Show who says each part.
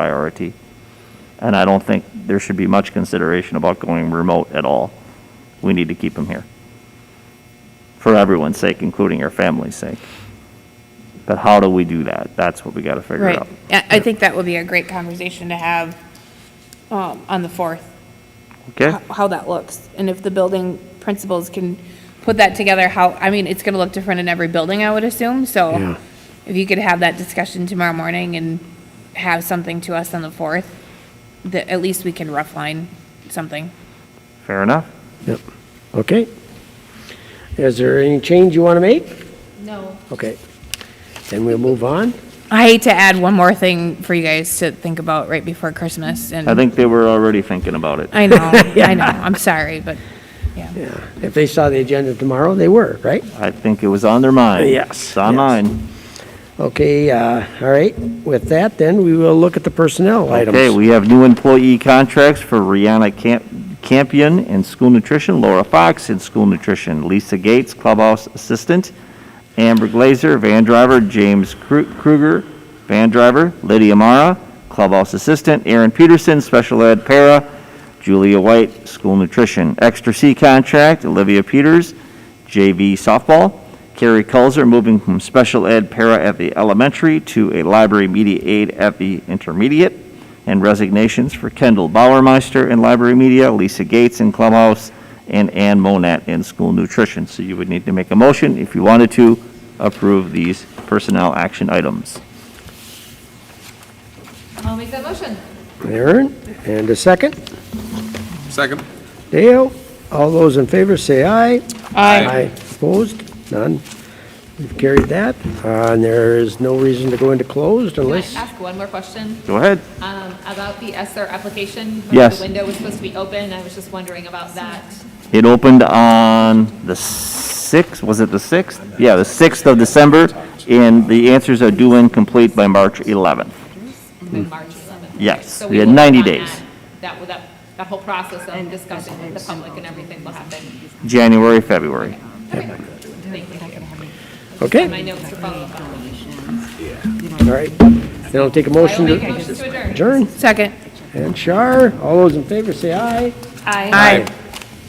Speaker 1: priority. And I don't think there should be much consideration about going remote at all. We need to keep them here. For everyone's sake, including our family's sake. But how do we do that? That's what we gotta figure
Speaker 2: Right.
Speaker 1: out.
Speaker 2: I I think that would be a great conversation to have um, on the 4th,
Speaker 1: Okay?
Speaker 2: how how that looks. And if the building principals can put that together, how, I mean, it's going to look different in every building, I would assume. So if you could have that discussion tomorrow morning and have something to us on the 4th, that at least we can rough line something.
Speaker 1: Fair enough?
Speaker 3: Yep, okay. Is there any change you want to make?
Speaker 2: No.
Speaker 3: Okay. Then we'll move on.
Speaker 2: I hate to add one more thing for you guys to think about right before Christmas.
Speaker 1: I think they were already thinking about it.
Speaker 2: I know, I know. I'm sorry, but, yeah.
Speaker 3: Yeah, if they saw the agenda tomorrow, they were, right?
Speaker 1: I think it was on their mind.
Speaker 3: Yes,
Speaker 1: It's on
Speaker 3: yes.
Speaker 1: mine.
Speaker 3: Okay, uh, all right, with that, then we will look at the personnel items.
Speaker 1: Okay, we have new employee contracts for Rihanna Camp- Campion in school nutrition, Laura Fox in school nutrition, Lisa Gates, clubhouse assistant, Amber Glazer, van driver, James Kru- Kruger, van driver, Lydia Mara, clubhouse assistant, Aaron Peterson, special ed para, Julia White, school nutrition, extra C contract, Olivia Peters, JV softball, Carrie Culzer moving from special ed para at the elementary to a library media aide at the intermediate, and resignations for Kendall Bauermeister in library media, Lisa Gates in clubhouse, and Ann Monat in school nutrition. So you would need to make a motion if you wanted to approve these personnel action items.
Speaker 4: I'll make that motion.
Speaker 3: Aaron, and a second.
Speaker 5: Second.
Speaker 3: Dale, all those in favor say aye.
Speaker 2: Aye.
Speaker 3: Opposed? None. We've carried that. Uh, And there is no reason to go into closed
Speaker 4: Can I
Speaker 3: unless,
Speaker 4: ask one more question
Speaker 1: Go ahead.
Speaker 4: um, about the ESER application? when
Speaker 1: Yes.
Speaker 4: The window was supposed to be open, I was just wondering about that.
Speaker 1: It opened on the 6th, was it the 6th? Yeah, the 6th of December, and the answers are due and complete by March 11th.
Speaker 4: Moved March 11th. Okay,
Speaker 1: Mm-hmm. Yes,
Speaker 4: so
Speaker 1: we had
Speaker 4: will work
Speaker 1: 90
Speaker 4: on
Speaker 1: days.
Speaker 4: that. That, will- that, that whole process of discussing with the public and everything will happen.
Speaker 1: January, February.
Speaker 4: Thank you.
Speaker 3: okay,
Speaker 4: My notes to follow up on.
Speaker 3: all right. Then I'll take a
Speaker 4: I'll
Speaker 3: motion
Speaker 4: make a
Speaker 3: to
Speaker 4: motion to adjourn.
Speaker 3: adjourn.
Speaker 2: Second.
Speaker 3: And Shar, all those in favor say aye.
Speaker 4: Aye.
Speaker 2: Aye.